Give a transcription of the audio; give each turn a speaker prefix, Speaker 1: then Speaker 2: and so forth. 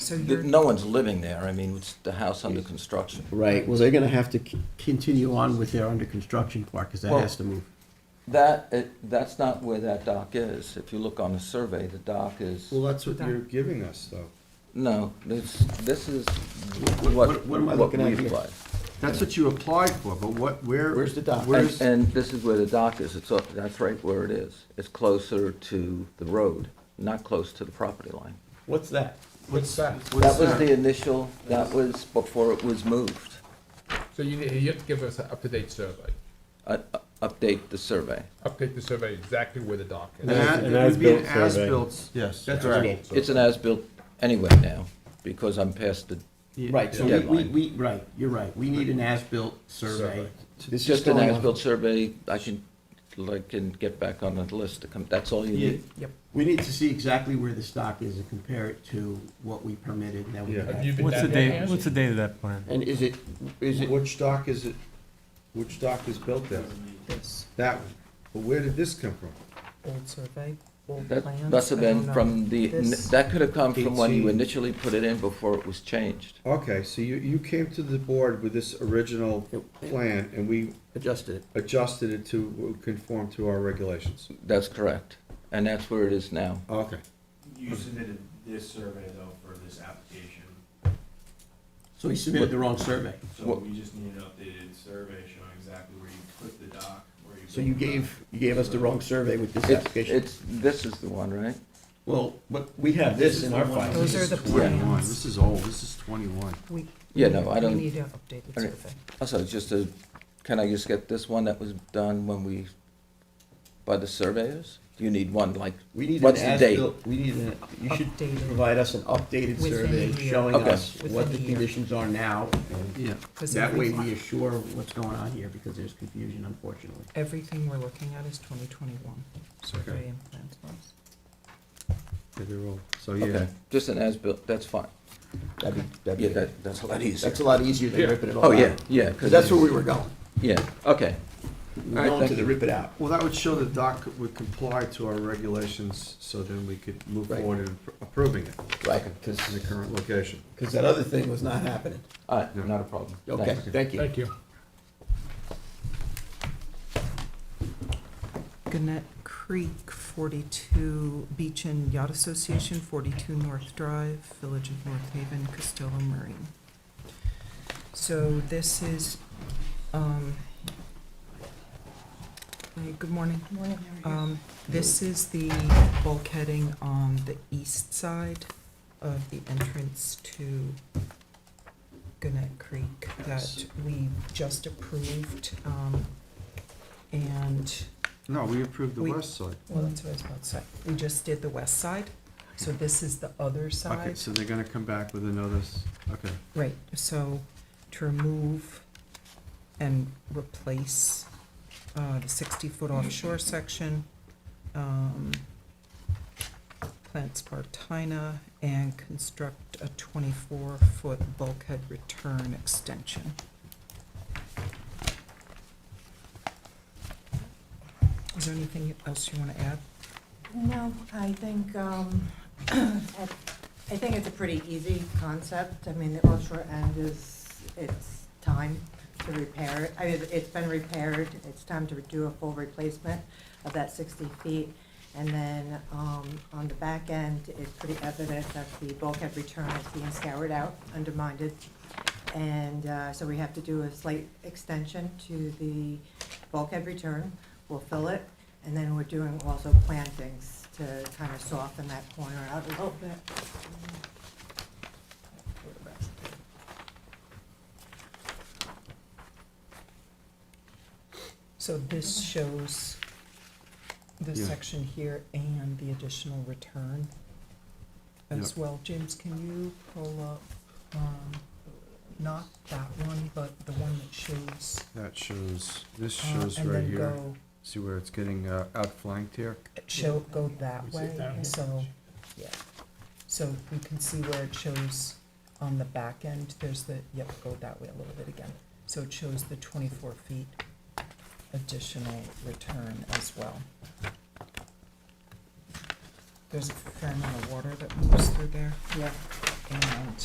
Speaker 1: so
Speaker 2: Th-
Speaker 1: you're,
Speaker 2: No one's living there, I mean, it's the house under construction.
Speaker 3: Right, well, they're gonna have to c- continue on with their under construction part, because that
Speaker 2: Well-
Speaker 3: has to move.
Speaker 2: That, it- that's not where that dock is. If you look on the survey, the dock is,
Speaker 4: Well, that's what you're giving us, though.
Speaker 2: no, this, this is
Speaker 4: What-
Speaker 2: what,
Speaker 4: what- what am I
Speaker 2: what
Speaker 4: looking at
Speaker 2: we
Speaker 4: here?
Speaker 2: applied.
Speaker 4: That's what you applied for, but what, where?
Speaker 3: Where's the dock?
Speaker 2: And,
Speaker 4: Where's,
Speaker 2: and this is where the dock is, it's, up- that's right where it is. It's closer to the road, not close to the property line.
Speaker 3: What's that?
Speaker 5: What's that?
Speaker 2: That was the initial, that was before it was moved.
Speaker 5: So you, need- you have to give us an up-to-date survey,
Speaker 2: Uh, uh, Update the survey.
Speaker 5: update the survey exactly where the dock
Speaker 4: an
Speaker 5: is.
Speaker 4: a-
Speaker 6: An
Speaker 4: it would be an
Speaker 6: as-built survey.
Speaker 4: as-built.
Speaker 6: Yes.
Speaker 4: That's
Speaker 6: as-built
Speaker 4: right.
Speaker 6: survey.
Speaker 2: It's an as-built anyway now, because I'm past the,
Speaker 3: Right, so we, we,
Speaker 2: Deadline.
Speaker 3: we, right, you're right, we need an as-built survey.
Speaker 5: Survey.
Speaker 3: This is
Speaker 2: just an
Speaker 3: going on-
Speaker 2: as-built survey. I should, like, can get back on the list to come, that's all you
Speaker 3: Yeah,
Speaker 2: need.
Speaker 1: yep.
Speaker 3: We need to see exactly where the stock is and compare it to what we permitted, and then we
Speaker 4: Yeah.
Speaker 5: Have you
Speaker 3: have.
Speaker 5: been
Speaker 6: What's the
Speaker 5: down there?
Speaker 6: date, what's the date of that plan?
Speaker 3: And is it, is it,
Speaker 4: Which dock is it, which dock is built there?
Speaker 1: this
Speaker 4: That one. But where did this come from?
Speaker 1: old survey, old
Speaker 2: That
Speaker 1: plans.
Speaker 2: must have
Speaker 1: I
Speaker 2: been
Speaker 1: don't know.
Speaker 2: from the,
Speaker 1: This-
Speaker 2: that could have come from when you
Speaker 4: 18.
Speaker 2: initially put it in before it was changed.
Speaker 4: Okay, so you, you came to the board with this original plan, and we
Speaker 3: adjusted it?
Speaker 4: adjusted it to conform to our regulations.
Speaker 2: That's correct, and that's where it is now.
Speaker 4: Okay.
Speaker 7: You submitted this survey though for this application,
Speaker 3: So he submitted the wrong survey.
Speaker 7: so
Speaker 2: What-
Speaker 7: we just need an updated survey showing exactly where you put the dock, where you.
Speaker 3: So
Speaker 7: built
Speaker 3: you
Speaker 7: the
Speaker 3: gave, you gave us the wrong survey with this
Speaker 2: It's,
Speaker 3: application.
Speaker 2: it's, this is the one, right?
Speaker 3: Well, but we have this in our file.
Speaker 1: Those are the
Speaker 4: Twenty-one,
Speaker 1: plans.
Speaker 4: this is old, this is twenty-one.
Speaker 1: We-
Speaker 2: Yeah, no, I don't-
Speaker 1: We need an updated
Speaker 2: I don't-
Speaker 1: survey.
Speaker 2: Also, just a, can I just get this one that was done when we, by the surveyors? Do you need one, like,
Speaker 3: We need an
Speaker 2: What's the date?
Speaker 3: as-built, we need an, you should
Speaker 1: Updated.
Speaker 3: provide us an updated
Speaker 1: Within a
Speaker 3: survey
Speaker 1: year.
Speaker 3: showing
Speaker 2: Okay.
Speaker 3: us what
Speaker 1: Within
Speaker 3: the
Speaker 1: a year.
Speaker 3: conditions are now. and
Speaker 4: Yeah.
Speaker 1: 'cause
Speaker 3: That way
Speaker 1: everything-
Speaker 3: we assure what's going on here, because there's confusion unfortunately.
Speaker 1: Everything we're looking at is twenty twenty-one survey and plans. files.
Speaker 4: they're old, so yeah.
Speaker 2: okay, just an as-built, that's fine.
Speaker 3: That'd be,
Speaker 2: Yeah,
Speaker 3: that'd be,
Speaker 2: that, that's a lot easier.
Speaker 3: that's a lot easier than
Speaker 5: Yeah.
Speaker 3: ripping it all out.
Speaker 2: Oh, yeah, yeah,
Speaker 3: 'Cause
Speaker 2: because,
Speaker 3: that's where we were going.
Speaker 2: yeah, okay,
Speaker 3: We were
Speaker 2: All right,
Speaker 3: going to
Speaker 2: thank
Speaker 3: the rip it out.
Speaker 4: Well, that would show the dock would comply to our regulations, so then we could move
Speaker 3: Right.
Speaker 4: forward in approving it
Speaker 3: Right,
Speaker 4: in
Speaker 3: because,
Speaker 4: the current location.
Speaker 3: that other thing was not happening.
Speaker 2: all right, not a problem.
Speaker 3: Okay,
Speaker 2: Thanks.
Speaker 3: thank you.
Speaker 5: Thank you.
Speaker 1: Gannett Creek, forty-two, Beach and Yacht Association, forty-two North Drive, Village of North Haven, Costello Marine. So this is, um, hey, good morning. Morning, Um, this is the bulkheading on the east side of the entrance to Gannett Creek that we just approved, um, and
Speaker 4: No, we approved the
Speaker 1: We-
Speaker 4: west side.
Speaker 1: well, that's what I was about to say. We just did the west side, so this is the other
Speaker 4: Okay,
Speaker 1: side.
Speaker 4: so they're gonna come back with another, s- okay.
Speaker 1: Right, so to remove and replace uh, the sixty-foot offshore section, um, plant Spartina, and construct a twenty-four-foot bulkhead return extension. Is there anything else you want to add?
Speaker 8: No, I think, um, I I think it's a pretty easy concept. I mean, the offshore end is, it's time to repair it. I mean, it's been repaired, it's time to do a full replacement of that sixty feet. And then, um, on the back end, it's pretty evident that the bulkhead return is being scoured out, undermined. And, uh, so we have to do a slight extension to the bulkhead return. We'll fill it, and then we're doing also plantings to kind of soften that corner out a little bit.
Speaker 1: So this shows this
Speaker 4: Yeah.
Speaker 1: section here and the additional return as well. James, can you pull up, um, not that one, but the one that shows?
Speaker 4: That shows, this
Speaker 1: uh,
Speaker 4: shows
Speaker 1: and
Speaker 4: right
Speaker 1: then
Speaker 4: here.
Speaker 1: go-
Speaker 4: See where it's getting uh, outflanked here?
Speaker 1: Show, go that
Speaker 5: Is it
Speaker 1: way,
Speaker 5: down here?
Speaker 1: so, yeah. So we can see where it shows on the back end, there's the, yep, go that way a little bit again. So it shows the twenty-four feet additional return as well. There's a fair amount of water that moves through there,
Speaker 8: Yeah.
Speaker 1: and